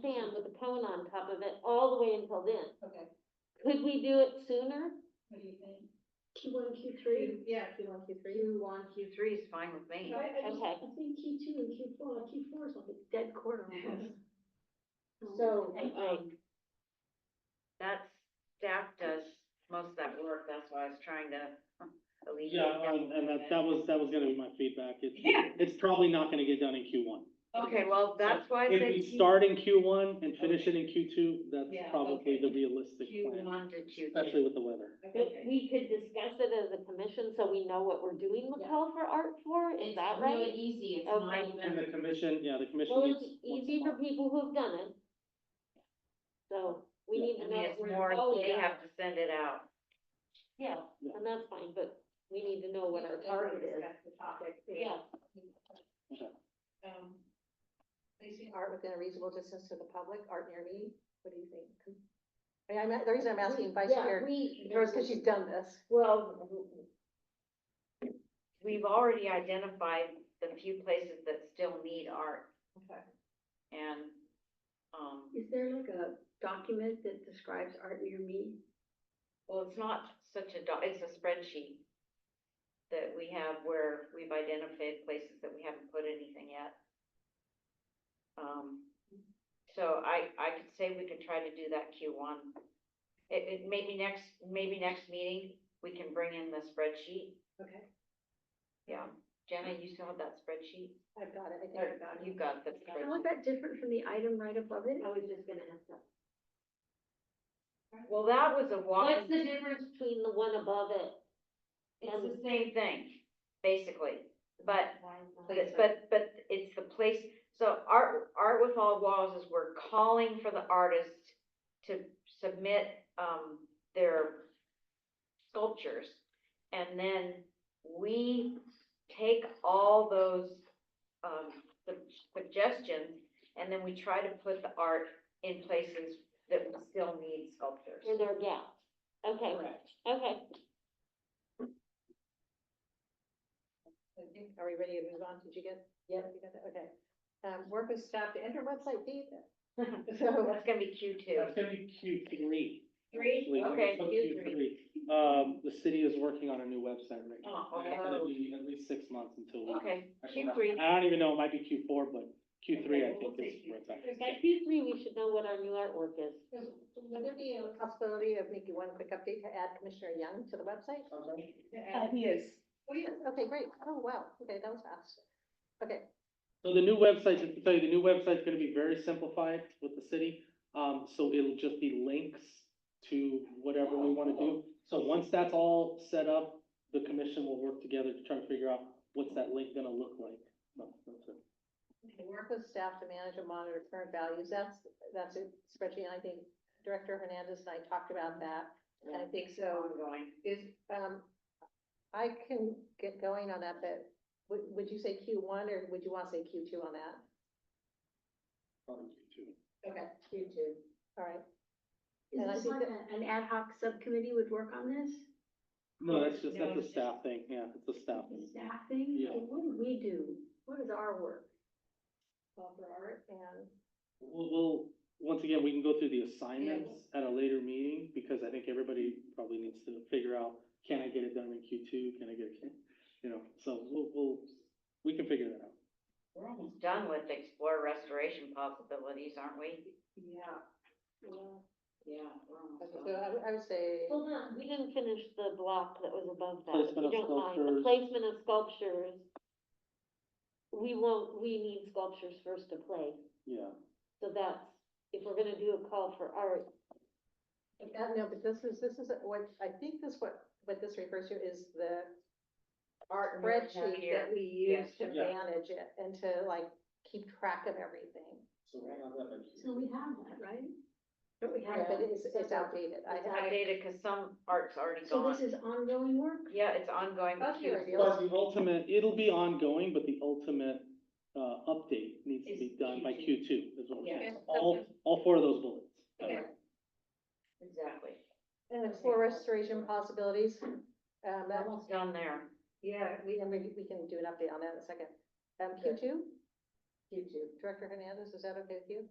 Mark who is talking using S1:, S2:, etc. S1: stand with a cone on top of it all the way until then.
S2: Okay,
S1: Could we do it sooner?
S2: what do you think?
S3: Q one, Q three.
S2: Yeah, Q one, Q three.
S4: Q one, Q three is fine with me.
S3: I, I just,
S1: Okay.
S3: I think Q two and Q four, Q four is like a dead quarter almost.
S1: So,
S3: I-
S1: um,
S4: That staff does most of that work, that's why I was trying to alleviate.
S5: Yeah, and, and that, that was, that was gonna be my feedback. It's,
S4: Yeah,
S5: it's probably not gonna get done in Q one.
S4: okay, well, that's why I
S5: If
S4: said.
S5: we start in Q one and finish it in Q two,
S2: Yeah,
S5: that's probably the
S2: okay.
S5: realistic
S4: Q
S5: plan,
S4: one to Q
S5: especially
S4: two.
S5: with the weather.
S1: but we could discuss it as a commission, so we know what we're doing with
S2: Yeah.
S1: Call for Art for, is that
S6: It's really
S1: right?
S6: easy, it's
S1: Okay.
S6: not even,
S5: And the commission, yeah, the commission.
S1: Well,
S5: meets
S1: it's
S5: once a
S1: easy for
S5: month.
S1: people who've done it. So, we
S5: Yeah.
S1: need
S4: I
S1: to
S4: mean,
S1: know
S4: it's
S1: where
S4: more,
S1: to go with
S4: they
S1: it.
S4: have to send it out.
S1: Yeah,
S5: Yeah.
S1: and that's fine, but we need to know what our target is.
S2: That's the topic.
S1: Yeah,
S5: Okay.
S2: Um,
S3: Placing art within a reasonable distance to the public, art near me, what do you think? I mean, I'm, the reason I'm asking Vice
S1: Yeah,
S3: Chair,
S1: we-
S3: is because she's done this.
S1: Well,
S4: We've already identified the few places that still need art
S2: okay.
S4: and, um,
S3: Is there like a document that describes art near me?
S4: well, it's not such a, doc- it's a spreadsheet that we have where we've identified places that we haven't put anything yet. Um, so I, I could say we could try to do that Q one. It, it, maybe next, maybe next meeting, we can bring in the spreadsheet.
S2: Okay.
S4: Yeah, Jenna, you still have that spreadsheet?
S3: I've got it, I think
S4: Or
S3: I've got it.
S4: You've got the
S3: How is
S4: spreadsheet.
S3: that different from the item right above it?
S1: I was just gonna ask that.
S4: Well, that was a walk.
S1: What's the difference between the one above it?
S4: It's the same thing, basically, but But, but, but it's the place, so Art, Art with All Walls is we're calling for the artists to submit, um, their sculptures. And then we take all those, um, sug- suggestions, and then we try to put the art in places that we still need sculptures.
S1: Or their gaps. Okay,
S4: Correct.
S1: okay.
S2: Okay, Are we ready to move on? Did you get, yeah, you got that, okay. Um, work with staff to enter website data. So, uh,
S4: That's gonna be Q two.
S5: That's gonna be Q three.
S4: Three?
S2: Oh.
S5: actually.
S4: Okay,
S5: So
S4: Q three.
S5: Um, the city is working on a new website right now.
S4: Oh, okay.
S5: It's gonna be at least six months until we.
S4: Okay, Q
S5: actually,
S4: three.
S5: I don't even know, it might be Q four, but Q three, I
S4: Okay, we'll
S5: think
S4: see.
S5: is where it's at.
S1: By Q three, we should know what our new artwork is.
S3: Would there be a
S2: possibility of making one quick update to add Commissioner Young to the website? Uh,
S3: He is. Oh, yes, okay, great, oh, wow, okay, that was fast. Okay,
S5: So the new website, just to tell you, the new website's gonna be very simplified with the city, um, so it'll just be links to whatever we wanna do. So once that's all set up, the commission will work together to try to figure out what's that link gonna look like. No, that's it.
S2: Work with staff to manage and monitor current values, that's, that's a spreadsheet, and I think Director Hernandez and I talked about that. And I think so,
S4: Ongoing.
S2: is, um, I can get going on that, but would, would you say Q one or would you want to say Q two on that?
S5: Probably Q2.
S2: Okay, Q two. All right,
S3: is
S2: And I
S3: this
S2: think
S3: like a- an ad hoc subcommittee would work on this?
S5: No, that's just,
S4: No,
S5: that's a
S4: it's
S5: staff thing, yeah, it's a staff thing.
S3: Staffing,
S5: Yeah.
S3: Well, what do we do? What is our work?
S2: call for art and.
S5: We'll, we'll, once again, we can go through the assignments at a later meeting, because I think everybody probably needs to figure out, can I get it done in Q two, can I get it, you know, so we'll, we'll, we can figure that out.
S4: We're almost done with explore restoration possibilities, aren't we?
S2: Yeah.
S4: Yeah. we're almost
S2: So
S4: done.
S2: I, would- I would say,
S1: Hold on, we didn't finish the block that was above that. if
S5: Placement
S1: you
S5: of
S1: don't mind. The
S5: sculptures.
S1: Placement of sculptures. We won't, we need sculptures first to place,
S5: Yeah,
S1: so that's, if we're gonna do a call for art,
S2: uh, no, but this is, this is what, I think this what, what this refers to is the
S4: Art
S2: spreadsheet that we use to
S5: Yeah.
S2: manage it and to like keep track of everything.
S5: so we'll have
S3: So we have that,
S5: that by
S3: right?
S2: But we have, but it's, it's outdated. I,
S4: It's
S2: I,
S4: outdated because some art's already
S3: So this
S4: gone.
S3: is Oh, ongoing work?
S4: Yeah, it's ongoing.
S2: That's your idea.
S4: Q-
S5: But the ultimate, it'll be ongoing, but the ultimate, uh, update needs to
S4: Is
S5: be done by Q
S4: Q2.
S5: two, is what we're
S4: Yeah.
S5: saying.
S2: Okay.
S5: All, all four of those bullets.
S2: Okay.
S4: Exactly.
S2: and explore restoration possibilities. Um,
S4: We're
S2: that,
S4: Almost done there.
S2: yeah, we, and we, we can do an update on that in a second. Um, Q two? Q two. Director Hernandez, is that okay with you?